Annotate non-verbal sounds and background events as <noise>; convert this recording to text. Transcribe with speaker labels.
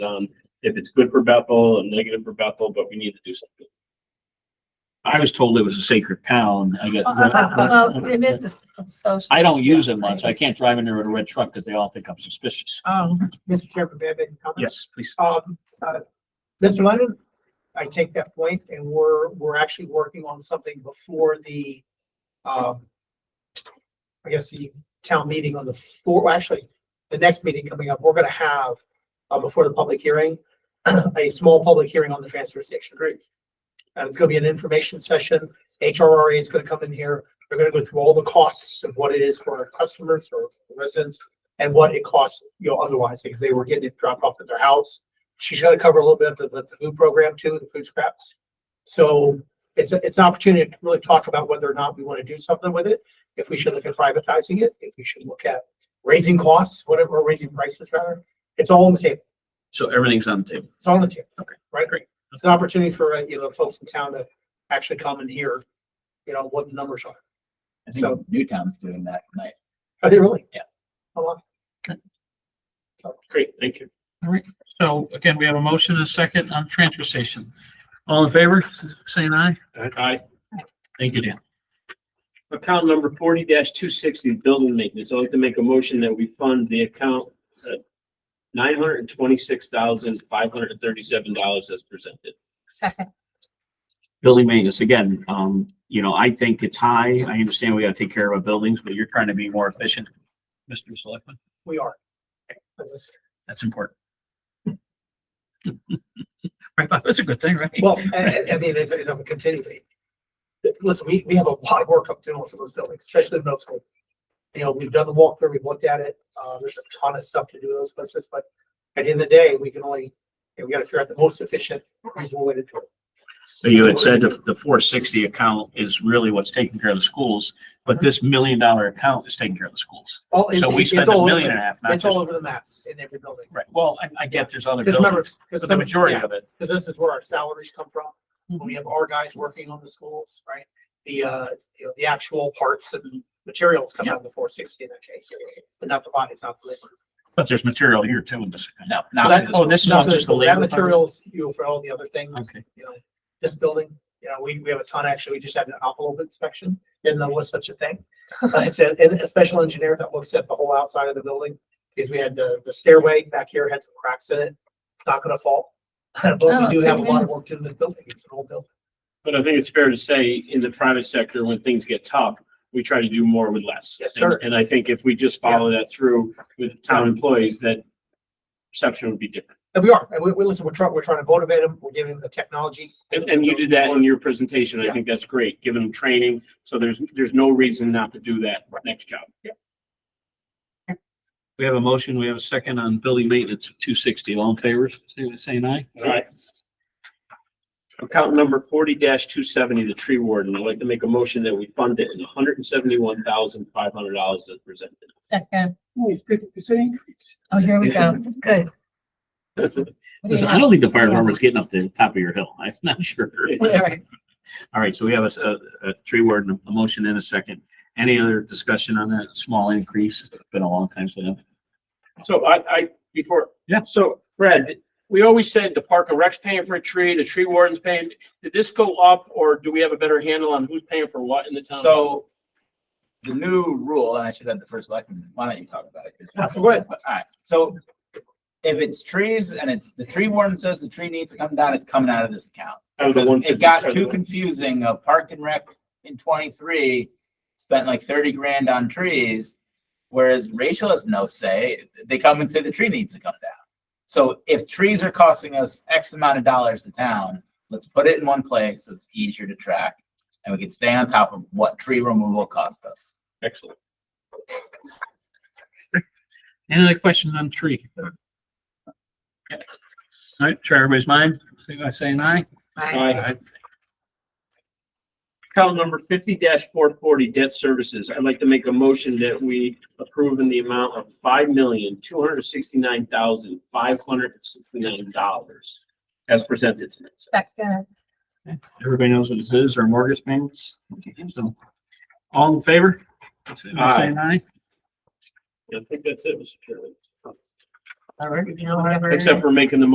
Speaker 1: done. um, If it's good for Bethel and negative for Bethel, but we need to do something.
Speaker 2: I was told it was a sacred cow and I got,
Speaker 3: Oh, <laughs> Well, it is a social.
Speaker 2: I don't use it much. I can't drive in there with a red truck because they all think I'm suspicious.
Speaker 4: Um, Mr. Chairman, may I make a comment?
Speaker 2: Yes, please.
Speaker 4: Um, uh, Mr. Lennon, I take that point and we're, we're actually working on something before the, um, I guess the town meeting on the four, well, actually, the next meeting coming up, we're gonna have, uh, before the public hearing, <clears throat> a small public hearing on the transfer station. Great. And it's gonna be an information session. HRRA is gonna come in here. They're gonna go through all the costs of what it is for our customers or residents and what it costs, you know, otherwise, if they were getting it dropped off at their house. She's gonna cover a little bit of the, the food program too, the food scraps. So it's, a- it's an opportunity to really talk about whether or not we want to do something with it. If we should look at privatizing it, if we should look at raising costs, whatever, or raising prices rather. It's all on the table.
Speaker 1: So everything's on the table.
Speaker 4: It's all on the table. Okay. Right? Great. It's an opportunity for, uh, you know, folks in town to actually come and hear, you know, what the numbers are.
Speaker 5: I
Speaker 4: So-
Speaker 5: think Newtown's doing that tonight.
Speaker 4: Are they really?
Speaker 5: Yeah.
Speaker 4: A lot.
Speaker 1: Great, thank you.
Speaker 6: So again, we have a motion and a second on transfer station. All in favor, saying aye?
Speaker 1: Aye.
Speaker 6: Thank you, Dan.
Speaker 1: Account number forty two sixty, building maintenance. I'd like to make a motion that we fund the account at nine hundred and twenty-six thousand, five hundred and thirty-seven dollars as presented.
Speaker 3: Second,
Speaker 2: Building maintenance, again, um, you know, I think it's high. I understand we gotta take care of our buildings, but you're trying to be more efficient. Mr. Selectman,
Speaker 4: We are. As I said.
Speaker 2: that's
Speaker 5: <laughs>
Speaker 2: important. Right, but that's a good thing, right? <laughs>
Speaker 4: Well, I, I mean, if, if I'm continuing. Listen, we, we have a lot of work up to do on some of those buildings, especially the middle school. You know, we've done the walkthrough, we've looked at it, uh, there's a ton of stuff to do in those places, but at the end of the day, we can only, we gotta figure out the most efficient, reasonable way to do it.
Speaker 2: So you had said the, the four sixty account is really what's taking care of the schools,
Speaker 5: Uh-huh.
Speaker 2: but this million dollar account is taking care of the schools.
Speaker 4: All- it-
Speaker 2: So we
Speaker 4: it's
Speaker 2: spend a
Speaker 4: all over
Speaker 2: million
Speaker 4: the-
Speaker 2: and a half, not
Speaker 4: It's all
Speaker 2: just,
Speaker 4: over the map in every building.
Speaker 2: right, well, I, I get there's other
Speaker 4: Because remember,
Speaker 2: buildings,
Speaker 4: because
Speaker 2: but the majority of it.
Speaker 4: because this is where our salaries come from.
Speaker 2: Hmm.
Speaker 4: When we have our guys working on the schools, right? The, uh, you know, the actual parts and materials come out of the four sixty in that case, but not the bodies, not the labor.
Speaker 2: But there's material here too in this. No,
Speaker 4: That-
Speaker 2: Oh, this is not just the labor.
Speaker 4: That materials, you know, for all the other things,
Speaker 2: Okay,
Speaker 4: you know, this building, you know, we, we have a ton, actually, we just had an envelope inspection, didn't know was such
Speaker 2: <laughs>
Speaker 4: a thing. Uh, It's a, and a special engineer that looks at the whole outside of the building, because we had the, the stairway back here had some cracks in it, it's not gonna fall. <laughs> But
Speaker 3: Oh,
Speaker 4: we do have a lot of
Speaker 3: goodness.
Speaker 4: work to do in this building, it's an old building.
Speaker 1: But I think it's fair to say, in the private sector, when things get tough, we try to do more with less.
Speaker 4: Yes, sir.
Speaker 1: And I think if we just follow that through with town employees, that perception would be different.
Speaker 4: And we are, and we, we listen, we're trying, we're trying to motivate them, we're giving them the technology.
Speaker 1: And, and you did that in your presentation. I
Speaker 4: Yeah.
Speaker 1: think that's great, giving them training. So there's, there's no reason not to do that next job.
Speaker 6: We have a motion, we have a second on building maintenance of two sixty. All in favor, say- saying aye?
Speaker 1: All right. Account number forty two seventy, the tree warden. I'd like to make a motion that we fund it in hundred and seventy-one thousand, five hundred dollars as presented.
Speaker 3: second.
Speaker 4: It's fifty percent.
Speaker 3: Oh, here we go. Good. What do you
Speaker 2: Listen, I
Speaker 3: have?
Speaker 2: don't think the fire department's getting up to the top of your hill. I'm not sure.
Speaker 3: All right.
Speaker 2: All right, so we have a s- a, a tree word, and a motion and a second. Any other discussion on that small increase? It's Been a long time since.
Speaker 1: So I, I, before.
Speaker 2: Yeah.
Speaker 1: So Fred, we always said the park and rec's paying for a tree, the tree warden's paying. Did this go up or do we have a better handle on who's paying for what in the town?
Speaker 5: So the new rule, and I should have the first election, why don't you talk about it? 'Cause-
Speaker 4: Go ahead.
Speaker 5: All right, so if it's trees and it's, the tree warden says the tree needs to come down, it's coming out of this account.
Speaker 1: Out of the
Speaker 5: Because
Speaker 1: 150,
Speaker 5: It got
Speaker 1: sorry, the
Speaker 5: too
Speaker 1: one-
Speaker 5: confusing. A park and rec in twenty-three spent like thirty grand on trees. Whereas Rachel has no say. They come and say the tree needs to come down. So if trees are costing us X amount of dollars to town, let's put it in one place so it's easier to track. And we can stay on top of what tree removal cost us.
Speaker 1: Excellent.
Speaker 6: Any other questions on tree? Okay. All right, try everybody's mind, say by saying aye.
Speaker 3: Bye.
Speaker 1: Aye. Account number fifty four forty, debt services. I'd like to make a motion that we approve in the amount of five million, two hundred sixty-nine thousand, five hundred sixty-nine dollars as presented tonight.
Speaker 3: Second.
Speaker 2: Everybody knows what this is, or mortgage payments? So,
Speaker 6: All in favor? Say by
Speaker 1: Aye.
Speaker 6: Saying aye?
Speaker 1: I think that's it, Mr. Chairman.
Speaker 4: All right.
Speaker 1: Except for making the